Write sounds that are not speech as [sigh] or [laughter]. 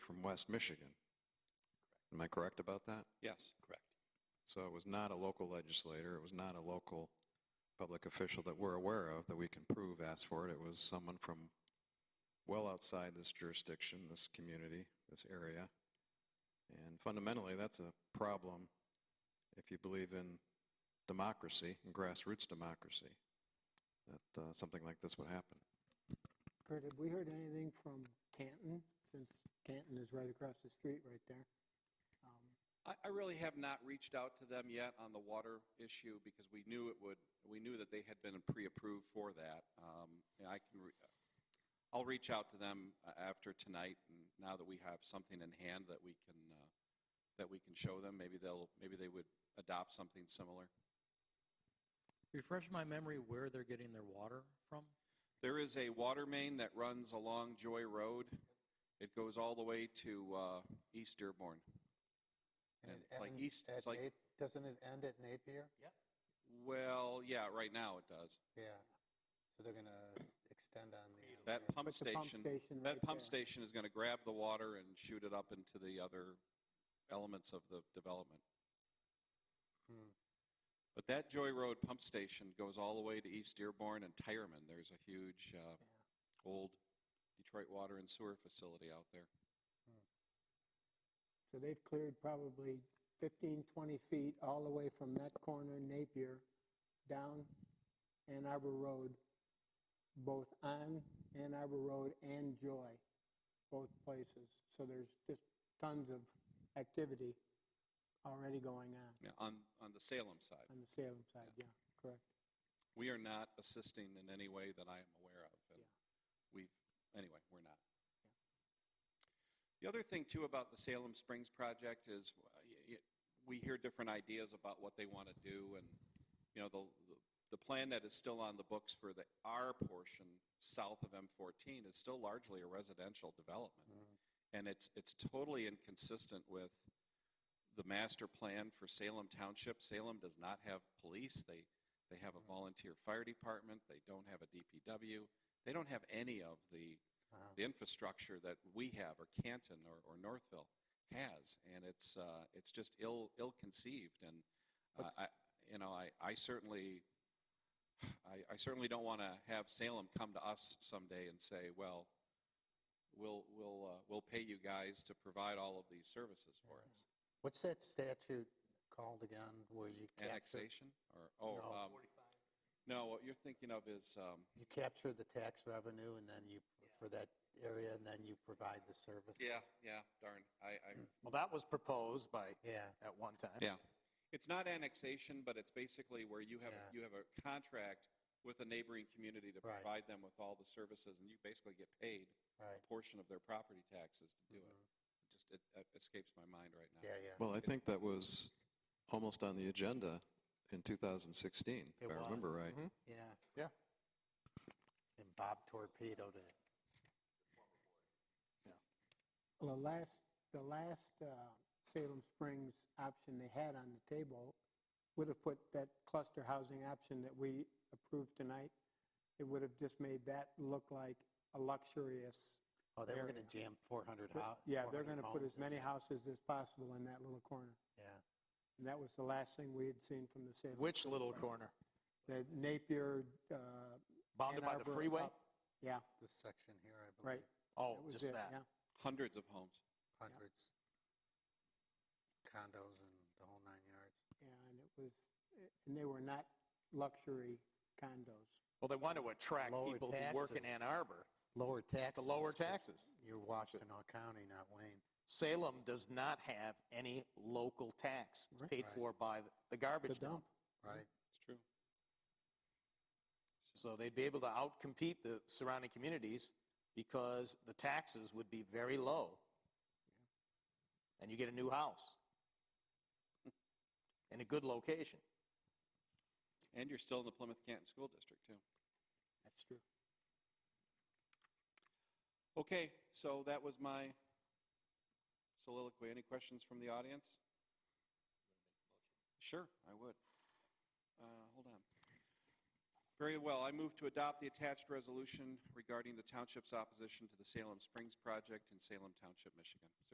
from West Michigan. Am I correct about that? Yes, correct. So it was not a local legislator, it was not a local public official that we're aware of that we can prove asked for it. It was someone from well outside this jurisdiction, this community, this area. And fundamentally, that's a problem if you believe in democracy, and grassroots democracy, that uh, something like this would happen. Kurt, have we heard anything from Canton, since Canton is right across the street right there? Um, I, I really have not reached out to them yet on the water issue because we knew it would, we knew that they had been pre-approved for that. Um, and I can, re- I'll reach out to them uh, after tonight and now that we have something in hand that we can, uh, that we can show them, maybe they'll, maybe they would adopt something similar. Refresh my memory where they're getting their water from? There is a water main that runs along Joy Road. It goes all the way to, uh, East Dearborn. And it it's like ends east- at it's like- Nap- Doesn't it end at Napier? Well, yeah, right now it does. Yeah. So they're going to extend on the. That Napier. pump But the pump station, station that right pump there. station is going to grab the water and shoot it up into the other elements of the development. Hmm. But that Joy Road pump station goes all the way to East Dearborn and Tyerman. There's a huge, uh, old Detroit water and sewer facility out there. So they've cleared probably 15, 20 feet all the way from that corner Napier down Ann Arbor Road, both on Ann Arbor Road and Joy, both places. So there's just tons of activity already going on Yeah, on, on the Salem side. on the Salem side, yeah, correct. We are not assisting in any way that I am aware of. and We've, anyway, we're not. The other thing too about the Salem Springs project is uh, y- y- we hear different ideas about what they want to do and, you know, the, the- the plan that is still on the books for the R portion south of M14 is still largely a residential development. Mhm. And it's, it's totally inconsistent with the master plan for Salem Township. Salem does not have police. They, they have a Mhm. volunteer fire department. They don't have a DPW. They don't have any of the, Uh-huh. the infrastructure that we have or Canton or, or Northville has. And it's, uh, it's just ill, ill-conceived. And uh, What's- I, you know, I, I certainly, I, I certainly don't want to have Salem come to us someday and say, well, we'll, we'll, uh, we'll pay you guys to provide all of these services for us. What's that statute called again where you capture, Annexation or, oh, Mm-hmm. No. um, no, what you're thinking of is, um, you capture the tax revenue and then you, for that area, and then you provide the service? yeah, yeah, darn, I, I, Well, that was proposed by, Yeah. at one time. Yeah. [clears throat] it's not annexation, but it's basically where you have, Yeah. you have a contract with a neighboring community to Right. provide them with all the services and you basically get paid a Right. portion of their property taxes to do it. Mhm. Just, it uh, escapes my mind right now. Yeah, yeah. Well, I think that was almost on the agenda in 2016, if It I remember was. right. Yeah. Yeah. And Bob torpedoed it. Well, the last, the last uh, Salem Springs option they had on the table would have put that cluster housing option that we approved tonight, it would have just made that look like a luxurious. Oh, they were Area. going to jam 400 hou- Yeah, they're going 400 to put homes as in many there. houses as possible in that little corner. Yeah. And that was the last thing we had seen from the Salem. Which little corner? The Napier. uh, Bounded Ann by the Arbor freeway? up- Yeah, This section here, I believe. Right. Oh, that was just it, that. yeah. Hundreds of homes. hundreds, condos and the whole nine yards. And it was, and they were not luxury condos. Well, they want to attract Lower people who work in taxes. Ann Arbor, Lower the taxes. lower but taxes. You're Washtenaw County, not Wayne. Salem does not have any local tax. It's Right. paid Right. for by the garbage dump. Right. It's true. So they'd be able to outcompete the surrounding communities because the taxes would be very low. And you get a new house in a good location. And you're still in the Plymouth Canton School District, too. That's true. Okay, so that was my soliloquy. Any questions from the audience? Sure, I would. Uh, hold on. Very well. I move to adopt the attached resolution regarding the township's opposition to the Salem Springs project in Salem Township, Michigan. Is there